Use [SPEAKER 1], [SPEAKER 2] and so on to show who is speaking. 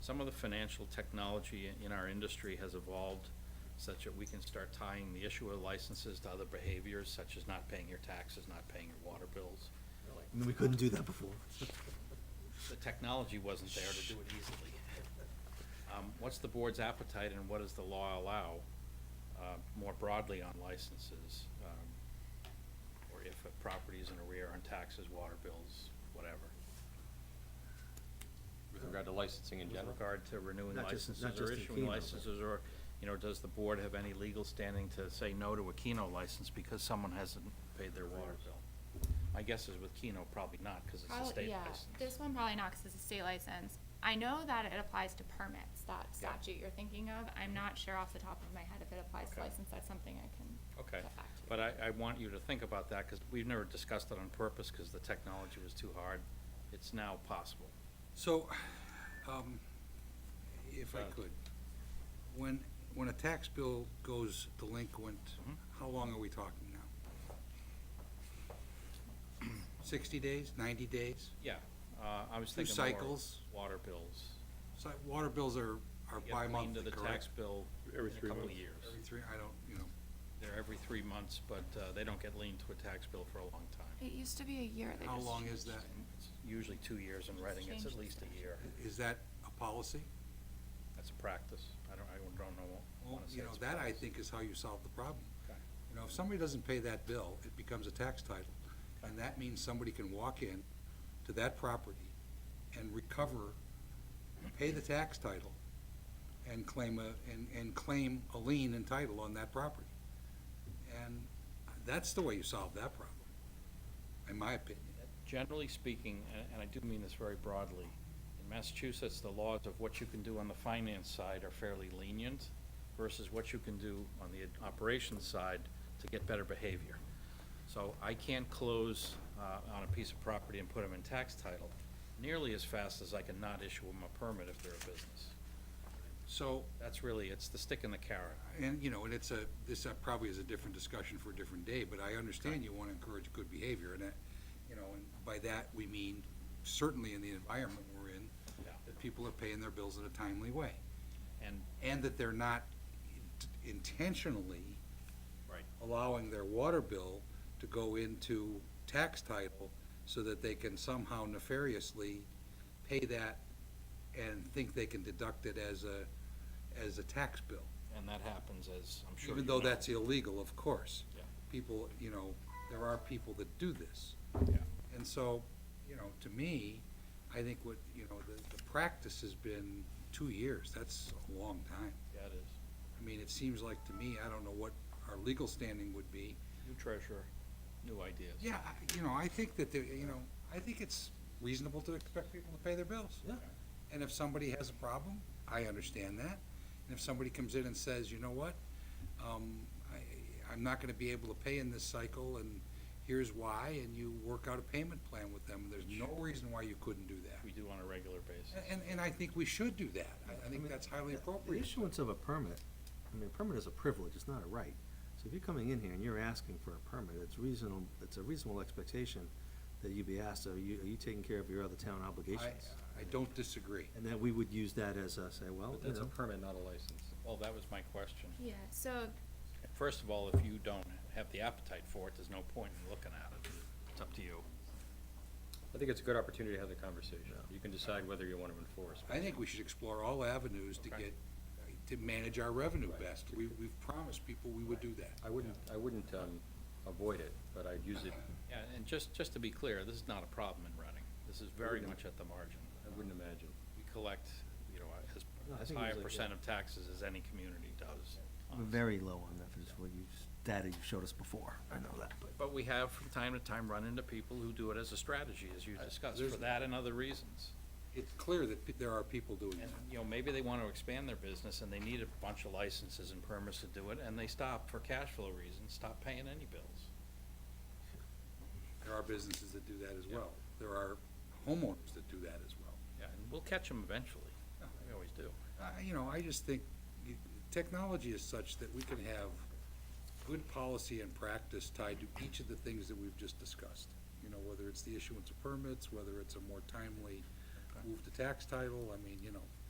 [SPEAKER 1] some of the financial technology in- in our industry has evolved such that we can start tying the issue of licenses to other behaviors such as not paying your taxes, not paying your water bills.
[SPEAKER 2] I mean, we couldn't do that before.
[SPEAKER 1] The technology wasn't there to do it easily. Um, What's the board's appetite and what does the law allow uh, more broadly on licenses? um, Or if a property is in arrear on taxes, water bills, whatever?
[SPEAKER 3] With regard to licensing in
[SPEAKER 1] with
[SPEAKER 3] general?
[SPEAKER 1] regard to renewing
[SPEAKER 2] Not just-
[SPEAKER 1] licenses
[SPEAKER 2] not
[SPEAKER 1] or
[SPEAKER 2] just in
[SPEAKER 1] issuing
[SPEAKER 2] Keno, but-
[SPEAKER 1] licenses, or, you know, does the board have any legal standing to say no to a Keno license because someone hasn't paid their water bill? My guess is with Keno, probably not, because it's a
[SPEAKER 4] Probably,
[SPEAKER 1] state
[SPEAKER 4] yeah,
[SPEAKER 1] license.
[SPEAKER 4] this one probably not, cause it's a state license. I know that it applies to permits, that
[SPEAKER 1] Yeah.
[SPEAKER 4] statute you're thinking of, I'm not sure off the top of my head if it applies to
[SPEAKER 1] Okay.
[SPEAKER 4] license, that's something I can
[SPEAKER 1] Okay,
[SPEAKER 4] get back to.
[SPEAKER 1] but I, I want you to think about that, because we've never discussed it on purpose, because the technology was too hard. It's now possible.
[SPEAKER 5] So, um, if I
[SPEAKER 1] Uh,
[SPEAKER 5] could, when, when a tax bill goes delinquent,
[SPEAKER 1] Mhm.
[SPEAKER 5] how long are we talking now? Sixty days, ninety days?
[SPEAKER 1] Yeah, uh, I was
[SPEAKER 5] Two
[SPEAKER 1] thinking more
[SPEAKER 5] cycles.
[SPEAKER 1] water bills.
[SPEAKER 5] So water bills are, are
[SPEAKER 1] Get cleaned
[SPEAKER 5] bi-monthly,
[SPEAKER 1] to the tax
[SPEAKER 5] correct?
[SPEAKER 1] bill in
[SPEAKER 6] Every
[SPEAKER 1] a
[SPEAKER 6] three
[SPEAKER 1] couple of
[SPEAKER 6] months.
[SPEAKER 1] years.
[SPEAKER 5] Every three, I don't, you know,
[SPEAKER 1] They're every three months, but uh, they don't get leaned to a tax bill for a long time.
[SPEAKER 4] It used to be a year, they
[SPEAKER 5] how
[SPEAKER 4] just
[SPEAKER 5] long
[SPEAKER 4] changed
[SPEAKER 5] is that?
[SPEAKER 1] It's Usually two years in Reading, it's at
[SPEAKER 4] Change
[SPEAKER 1] least a year.
[SPEAKER 5] Is that a policy?
[SPEAKER 1] That's a practice. I don't, I don't know,
[SPEAKER 5] Well,
[SPEAKER 1] want to say
[SPEAKER 5] you know,
[SPEAKER 1] it's
[SPEAKER 5] that I
[SPEAKER 1] practice.
[SPEAKER 5] think is how you solve the problem.
[SPEAKER 1] Okay.
[SPEAKER 5] You know, if somebody doesn't pay that bill, it becomes a tax title. And that means somebody can walk in to that property and recover, pay the tax title, and claim a, and, and claim a lien and title on that property. And that's the way you solve that problem, in my opinion.
[SPEAKER 1] Generally speaking, and- and I do mean this very broadly, in Massachusetts, the laws of what you can do on the finance side are fairly lenient versus what you can do on the operations side to get better behavior. So I can't close uh, on a piece of property and put them in tax title nearly as fast as I can not issue them a permit if they're a business.
[SPEAKER 5] So,
[SPEAKER 1] That's really, it's the stick and the carrot.
[SPEAKER 5] and, you know, and it's a, this uh, probably is a different discussion for a different day, but I understand you want to encourage good behavior, and that, you know, and by that, we mean certainly in the environment we're in,
[SPEAKER 1] Yeah.
[SPEAKER 5] that people are paying their bills in a timely way,
[SPEAKER 1] And,
[SPEAKER 5] and that they're not intentionally
[SPEAKER 1] right,
[SPEAKER 5] allowing their water bill to go into tax title so that they can somehow nefariously pay that and think they can deduct it as a, as a tax bill.
[SPEAKER 1] and that happens as, I'm sure you
[SPEAKER 5] Even though
[SPEAKER 1] know.
[SPEAKER 5] that's illegal, of course.
[SPEAKER 1] Yeah.
[SPEAKER 5] People, you know, there are people that do this.
[SPEAKER 1] Yeah.
[SPEAKER 5] And so, you know, to me, I think what, you know, the, the practice has been two years. That's a long time.
[SPEAKER 1] Yeah, it is.
[SPEAKER 5] I mean, it seems like to me, I don't know what our legal standing would be.
[SPEAKER 1] New treasurer, new ideas.
[SPEAKER 5] Yeah, I- you know, I think that, the- you know, I think it's reasonable to expect people to pay their bills.
[SPEAKER 2] Yeah.
[SPEAKER 5] And if somebody has a problem, I understand that. And if somebody comes in and says, you know what, um, I, I'm not gonna be able to pay in this cycle, and here's why, and you work out a payment plan with them, there's no reason why you couldn't do that.
[SPEAKER 1] We do on a regular basis.
[SPEAKER 5] And, and I think we should do that. I, I think that's highly appropriate.
[SPEAKER 2] The issuance of a permit, I mean, a permit is a privilege, it's not a right. So if you're coming in here and you're asking for a permit, it's reasonable, it's a reasonable expectation that you be asked, are you, are you taking care of your other town
[SPEAKER 5] I,
[SPEAKER 2] obligations?
[SPEAKER 5] I don't disagree.
[SPEAKER 2] And then we would use that as a, say, well,
[SPEAKER 3] But
[SPEAKER 2] you
[SPEAKER 3] that's a
[SPEAKER 2] know,
[SPEAKER 3] Oh, permit, not a license.
[SPEAKER 1] Well, that was my question.
[SPEAKER 4] Yeah, so
[SPEAKER 1] First of all, if you don't have the appetite for it, there's no point in looking at it. It's up to you.
[SPEAKER 3] I think it's a good opportunity to have the conversation.
[SPEAKER 2] Yeah.
[SPEAKER 3] You can decide whether you want to enforce.
[SPEAKER 5] I think we should explore all avenues to
[SPEAKER 1] Okay.
[SPEAKER 5] get, to manage our revenue best. We, we've promised people we would do that.
[SPEAKER 3] I wouldn't, I wouldn't um, avoid it, but I'd use it,
[SPEAKER 1] Yeah, and just, just to be clear, this is not a problem in Reading. This is very much at the margin.
[SPEAKER 3] I wouldn't imagine.
[SPEAKER 1] We collect, you know, as,
[SPEAKER 2] No, I
[SPEAKER 1] as
[SPEAKER 2] think it
[SPEAKER 1] high a
[SPEAKER 2] was like, yeah.
[SPEAKER 1] percent of taxes as any community does.
[SPEAKER 2] we're very low on that, is what you, data you showed us before, I know that, but.
[SPEAKER 1] But we have from time to time run into people who do it as a strategy, as you discussed, for
[SPEAKER 5] there's-
[SPEAKER 1] that and other reasons.
[SPEAKER 5] It's clear that pe- there are people doing
[SPEAKER 1] And,
[SPEAKER 5] that.
[SPEAKER 1] you know, maybe they want to expand their business and they need a bunch of licenses and permits to do it, and they stop for cash flow reasons, stop paying any bills.
[SPEAKER 5] There are businesses that do that as well. There are homeowners that do that as well.
[SPEAKER 1] Yeah, and we'll catch them eventually. We always do.
[SPEAKER 5] I- You know, I just think you- technology is such that we can have good policy and practice tied to each of the things that we've just discussed. You know, whether it's the issuance of permits, whether it's a more timely move to tax title, I mean, you know,